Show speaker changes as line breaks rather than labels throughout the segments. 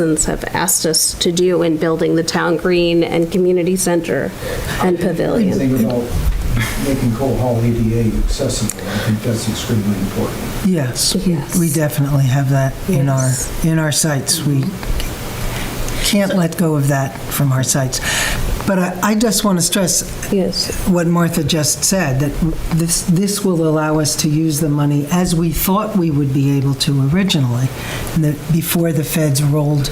citizens have asked us to do in building the town green and community center and pavilion.
Thing about making Cole Hall ADA accessible, I think that's extremely important.
Yes,
Yes.
we definitely have that in our,
Yes.
in our sites. We can't let go of that from our sites. But I, I just want to stress
Yes,
what Martha just said, that this, this will allow us to use the money as we thought we would be able to originally, and that before the feds rolled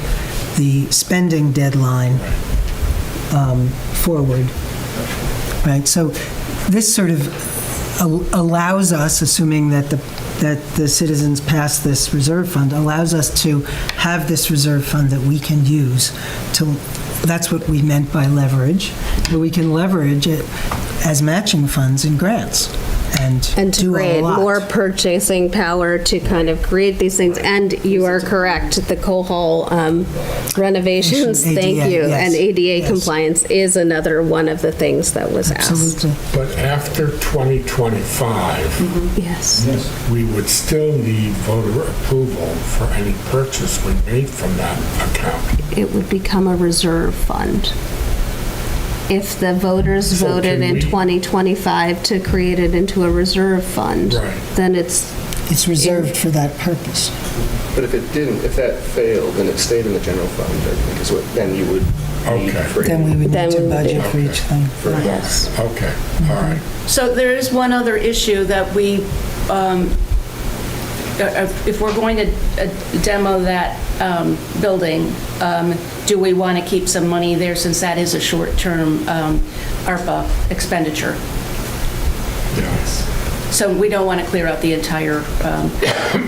the spending deadline um, forward. Right, so this sort of al- allows us, assuming that the, that the citizens pass this reserve fund, allows us to have this reserve fund that we can use to, that's what we meant by leverage, that we can leverage it as matching funds and grants and do a lot.
and to create more purchasing power to kind of create these things. And you are correct, the coal hall um, renovations,
ADA,
thank you,
yes,
and ADA
yes.
compliance is another one of the things that was asked.
Absolutely.
But after 2025,
Yes,
Yes,
we would still need voter approval for any purchase we made from that account.
it would become a reserve fund. If the voters
So
voted
can
in
we-
2025 to create it into a reserve fund,
Right.
then it's,
It's reserved for that purpose.
But if it didn't, if that failed and it stayed in the general fund, I think is what, then you would need
Okay.
for.
Then we would
Then
need
we
to
would
budget
do-
for each thing.
yes.
Okay, all right.
So there is one other issue that we, um, uh, if we're going to uh, demo that um, building, um, do we want to keep some money there since that is a short-term um, ARPA expenditure?
Yes.
So we don't want to clear out the entire um,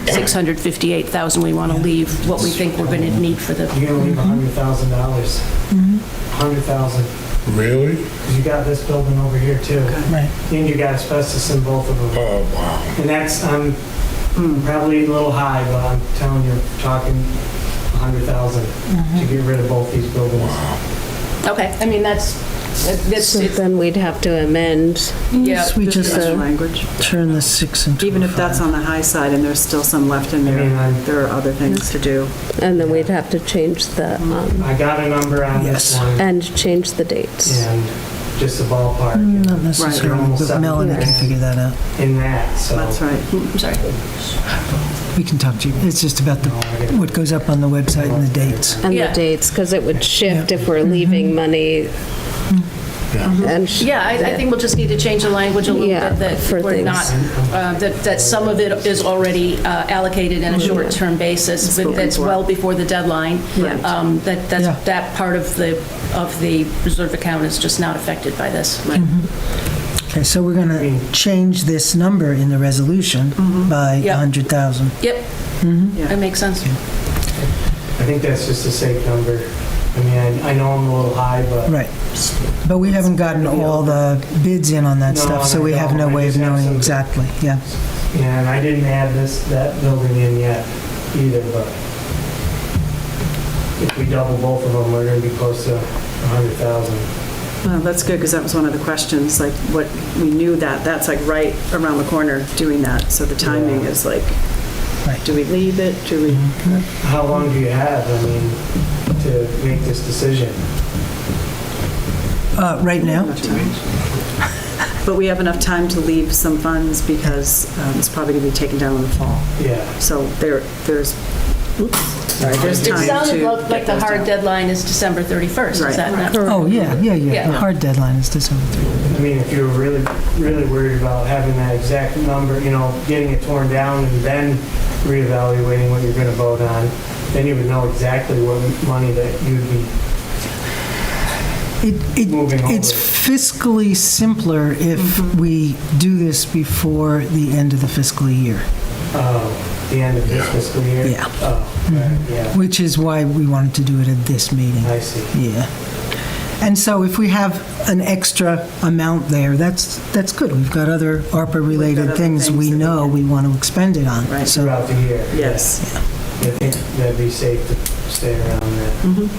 658,000. We want to leave what we think we're going to need for the,
You're gonna leave a hundred thousand dollars. Hundred thousand,
Really?
because you got this building over here too.
Right.
And you got asbestos in both of them.
Oh, wow.
And that's, I'm probably a little high, but I'm telling you, talking a hundred thousand to get rid of both these buildings.
okay, I mean, that's, that's,
So then we'd have to amend.
yeah.
We just
Discussion language,
turn the six into
even
a
if that's on the high side and there's still some left in there, there are other things to do.
And then we'd have to change the, um,
I got a number on this
Yes.
one
and change the dates.
and just a ballpark
Not necessarily,
almost
but
up.
Melanie can figure that out.
in that, so.
That's right.
I'm sorry.
We can talk to you. It's just about the, what goes up on the website and the dates.
And the
Yeah.
dates, because it would shift if we're leaving money. And, sh-
Yeah, I, I think we'll just need to change the language a little
Yeah,
bit, that
for
we're
things.
not, uh, that, that some of it is already uh, allocated on a short-term basis, but that's well before the deadline.
Yeah.
Um, That,
Yeah.
that's, that part of the, of the reserve account is just not affected by this.
Mm-hmm.
Okay, so we're going to change this number in the resolution by
Yeah.
100,000.
Yep, that makes sense.
I think that's just a safe number. I mean, I- I know I'm a little high, but.
Right. But we haven't gotten all the bids in on that
No,
stuff, so
I
we have no
don't. I
way of
just have
knowing
some-
exactly. Yeah.
And I didn't add this, that building in yet either, but if we double both of them, we're gonna be close to 100,000.
Well, that's good, because that was one of the questions, like, what, we knew that, that's like right around the corner doing that, so the timing is like,
Right.
do we leave it, do we?
How long do you have, I mean, to make this decision?
Uh, Right now?
Enough time. But we have enough time to leave some funds because um, it's probably going to be taken down in the fall.
Yeah.
So there, there's, oops, sorry, there's
It
time to.
sounded like- like
get
the
those
hard
down.
deadline is December 31st, is
Right.
that not?
Oh, yeah, yeah, yeah.
Yeah.
The hard deadline is December 3rd.
I mean, if you were really, really worried about having that exact number, you know, getting it torn down and then reevaluating what you're gonna vote on, then you would know exactly what money that you'd be
It, it,
Moving on.
it's fiscally simpler if we do this before the end of the fiscal year,
Oh, the end of this fiscal year?
Yeah.
Oh, right, yeah,
which is why we wanted to do it at this meeting.
I see.
Yeah. And so if we have an extra amount there, that's, that's good. We've got other
We've
ARPA-related
got other
things we
things that we
know
can-
we want to expend it on.
Right.
So
Throughout the year?
Yes,
I think that'd be safe to stay around that.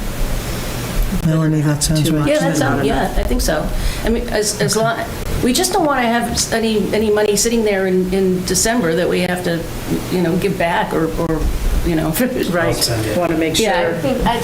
Melanie, that sounds
Too
right.
much.
Yeah, that
Not
sounds,
enough.
yeah, I think so. I mean, as, as long, we just don't want to have s- any, any money sitting there in, in December that we have to, you know, give back or, or
you know.
Right, want to make sure.
Yeah, I think- I